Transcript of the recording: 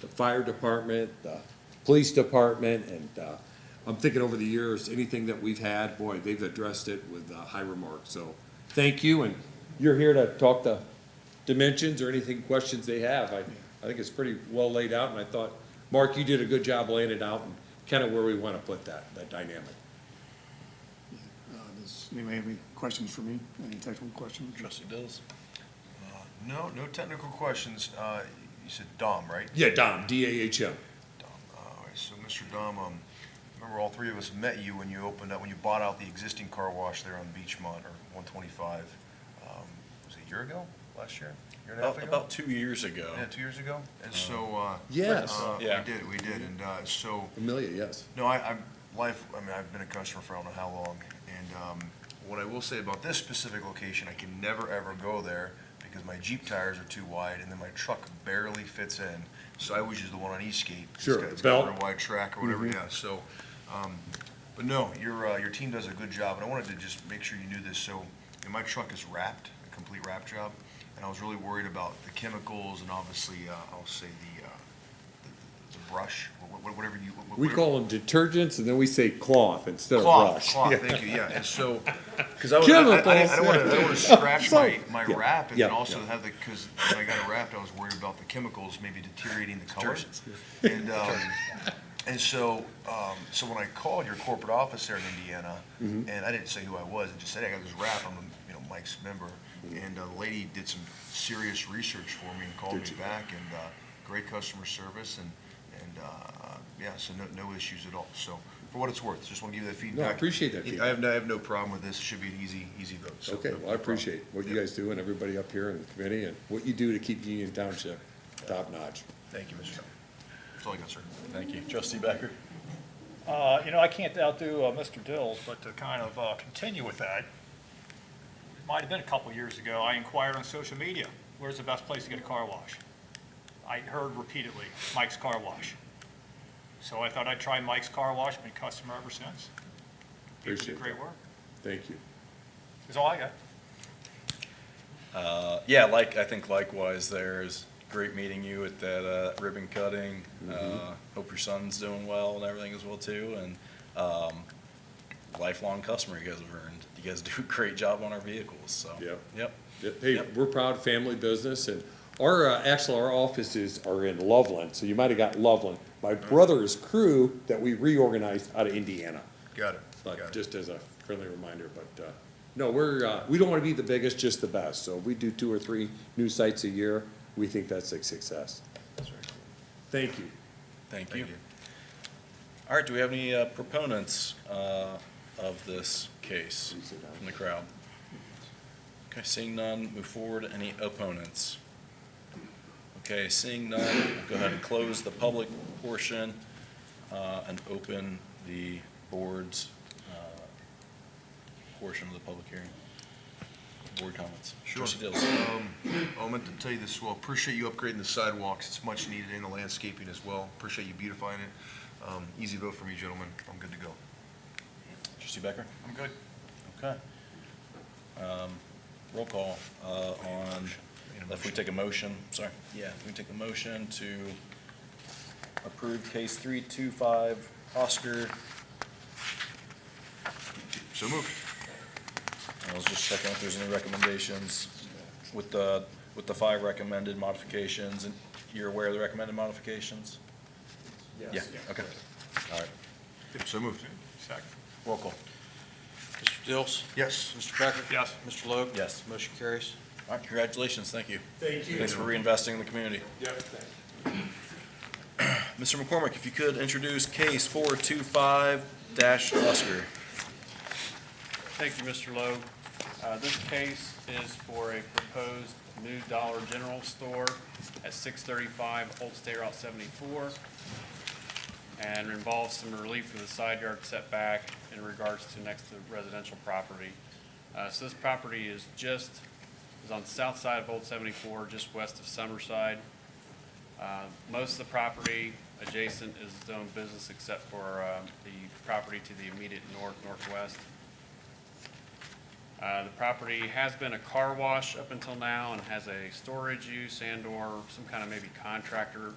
the fire department, the police department, and, uh, I'm thinking over the years, anything that we've had, boy, they've addressed it with, uh, high remarks, so, thank you, and you're here to talk the dimensions or anything, questions they have, I, I think it's pretty well laid out, and I thought, Mark, you did a good job laying it out and kinda where we wanna put that, that dynamic. Uh, Does anybody have any questions for me? Any technical questions? Trustee Dills? No, no technical questions. Uh, You said Dom, right? Yeah, Dom, D A H M. Dom. All right, so Mr. Dom, um, remember all three of us met you when you opened up, when you bought out the existing car wash there on Beachmont or 125. um, Was it a year ago, last year? Year and a half About, ago? about two years ago. Yeah, two years ago? And so, uh, Yes. uh, we Yeah. did, we did. And uh, so, Amelia, yes. No, I, I'm, life, I mean, I've been a customer for I don't know how long, and, um, what I will say about this specific location, I can never, ever go there because my Jeep tires are too wide and then my truck barely fits in. So I always use the one on Eastgate. It's Sure, got- It's belt. Mm-hmm. got a real wide track or whatever, yeah, so, um, but no, your, uh, your team does a good job, and I wanted to just make sure you knew this, so, and my truck is wrapped, a complete wrap job, and I was really worried about the chemicals and obviously, uh, I'll say the, uh, the- the brush, wha- wha- whatever you. wha- We whatever- call them detergents, and then we say cloth instead of Cloth, brush. cloth, thank you, yeah, and so, because I was, I, Chemicals, I- I don't want to, I don't want to scratch So- my, my yeah, wrap, and yeah, then also yeah. have the, because when I got it wrapped, I was worried about the chemicals maybe deteriorating the colors. And, um, and so, um, so when I called your corporate office there in Indiana, Mm-hmm. and I didn't say who I was, I just said, hey, I got this wrap, I'm, a, you know, Mike's member, and uh, the lady did some serious research for me and called Did me she? back, and, uh, great customer service, and, and, uh, yeah, so no, no issues at all, so, for what it's worth, just want to give you that feedback. No, I appreciate that I have, no- I have no problem with this, it should be an easy, easy vote, so. Okay, no- no well, I appreciate problem. what you Yep. guys do and everybody up here in the committee and what you do to keep Union Township top notch. Thank you, Mr. Chairman. That's all I got, sir. Thank you. Trustee Becker? Uh, You know, I can't outdo uh, Mr. Dills, but to kind of uh, continue with that, it might have been a couple years ago, I inquired on social media, where's the best place to get a car wash? I heard repeatedly, Mike's Car Wash. So I thought I'd try Mike's Car Wash, been a customer ever since. People do Appreciate great work. Thank you. That's all I got. Uh, yeah, like, I think likewise there's great meeting you at that, uh, ribbon cutting. Uh, hope your son's doing well and everything as well too, and, um, lifelong customer you guys have earned. You guys do a great job on our vehicles, so. Yep. Yep. Yeah, Hey, Yep. we're proud family business and our, uh, actually, our offices are in Loveland, so you might have got Loveland. My Uh-huh. brother's crew that we reorganized out of Indiana. Got it, But got it. just as a friendly reminder, but, uh, no, we're, uh, we don't wanna be the biggest, just the best. So if we do two or three new sites a year, we think that's a success. Thank you. Thank you. Thank you. All right, do we have any uh, proponents, uh, of this case Please sit down. from the crowd? Okay, seeing none, move forward. Any opponents? Okay, seeing none, we'll go ahead and close the public portion, uh, and open the board's, uh, portion of the public hearing. Board comments. Sure. Trustee Dills. Um, I meant to tell you this as well, appreciate you upgrading the sidewalks, it's much needed, and the landscaping as well, appreciate you beautifying it. Um, easy vote for me, gentlemen, I'm good to go. Trustee Becker? I'm good. Okay. Um, Roll call uh, on, if we take a motion, sorry, yeah, if we take a motion to approve case 325 Oscar. So moved. I was just checking if there's any recommendations with the, with the five recommended modifications. And you're aware of the recommended modifications? Yeah, okay. All right, So moved. Second. roll call. Mr. Dills? Yes. Mr. Becker? Yes. Mr. Logue? Yes. Motion carries. All right, congratulations, thank you. Thank Thanks for reinvesting in the community. Mr. McCormick, if you could introduce case four two five dash Oscar. Thank you, Mr. Logue. Uh, This case is for a proposed new Dollar General store at 635 Old State Route 74, and involves some relief for the side yard setback in regards to next to residential property. Uh, So this property is just, is on the south side of Old 74, just west of Summerside. Uh, Most of the property adjacent is zoned business except for um, the property to the immediate north, northwest. Uh, The property has been a car wash up until now and has a storage use and/or some kind of maybe contractor